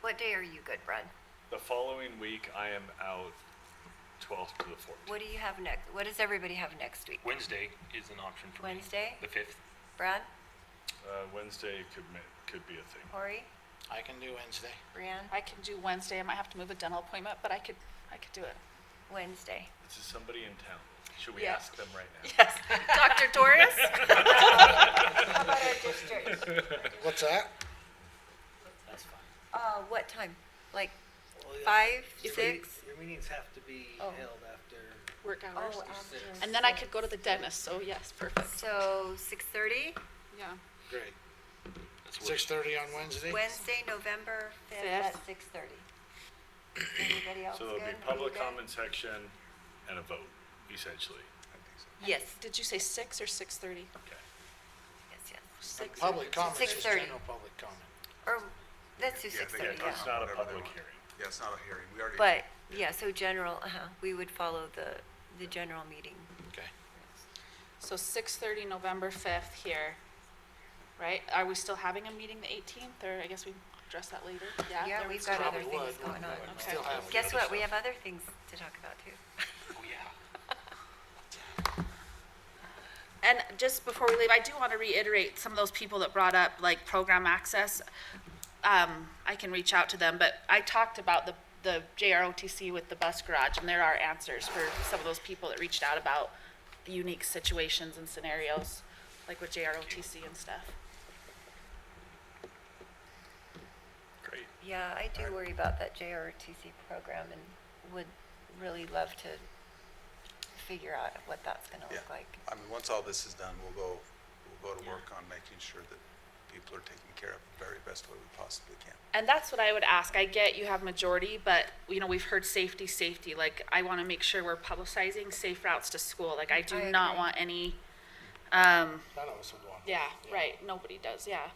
What day are you good, Brad? The following week, I am out 12th to the 14th. What do you have next? What does everybody have next week? Wednesday is an option for me. Wednesday? The fifth. Brad, Uh, Wednesday could ma- could be a thing. Corey, I can do Wednesday. Brianne? I can do Wednesday. I might have to move a dental appointment, but I could, I could do it. Wednesday. Is there somebody in town? Should we Yeah. ask them right now? Yes. Dr. Doris? How about our districts? What's that? Uh, what time? Like five, six? Your meetings have to be Oh. held after. Work hours. Oh, after. And then I could go to the dentist, so yes, perfect. So six thirty, Yeah. Great. That's what- Six thirty on Wednesday? Wednesday, November fifth at Fifth. six thirty. Anybody else So good? there'll be Are you public good? comment section and a vote, essentially. Yes, Did you say six or six thirty? Okay. yes, yes. Six. Public comment, just 6:30. general public comment. Or, let's do Yeah, six they thirty, can Yeah, yeah. talk it's about not a whatever they public want. hearing. Yeah, it's not a hearing. We already. But, yeah, so general, uh-huh, we would follow the, the general meeting. Okay. So six thirty, November fifth here, right? Are we still having a meeting the eighteenth, or I guess we address that later? Yeah. Yeah, there we've was- got other Probably things would, going wouldn't on. it? Okay. Still have the Guess other what, we stuff. have other things to talk about too. Oh, yeah. And just before we leave, I do want to reiterate some of those people that brought up like program access. Um, I can reach out to them, but I talked about the, the JROTC with the bus garage and there are answers for some of those people that reached out about the unique situations and scenarios, like with JROTC and stuff. Great. Yeah, I do worry about that JRTC program and would really love to figure out what that's gonna Yeah. look like. I mean, once all this is done, we'll go, we'll go to work on making sure that people are taken care of the very best way we possibly can. And that's what I would ask. I get you have majority, but you know, we've heard safety, safety. Like I want to make sure we're publicizing safe routes to school. Like I do I not agree. want any, um, None of us would want. Yeah, right, nobody does, yeah.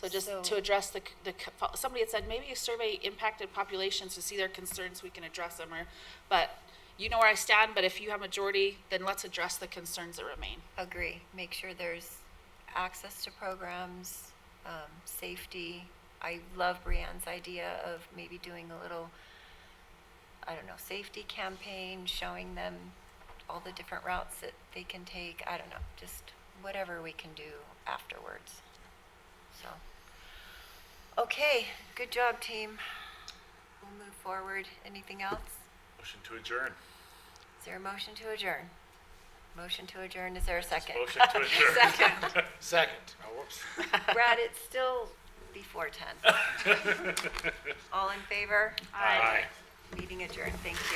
So just So- to address the, c- the, c- fo- somebody had said, maybe you survey impacted populations to see their concerns, we can address them, or, but you know where I stand, but if you have majority, then let's address the concerns that remain. Agree, make sure there's access to programs, um, safety. I love Brianne's idea of maybe doing a little, I don't know, safety campaign, showing them all the different routes that they can take. I don't know, just whatever we can do afterwards. So, okay, good job, team. We'll move forward. Anything else? Motion to adjourn. Is there a motion to adjourn? Motion to adjourn, is there a second? Motion to adjourn. Second. Oh, whoops. Brad, it's still before 10. All in favor? Aye. Meeting adjourned, thank you.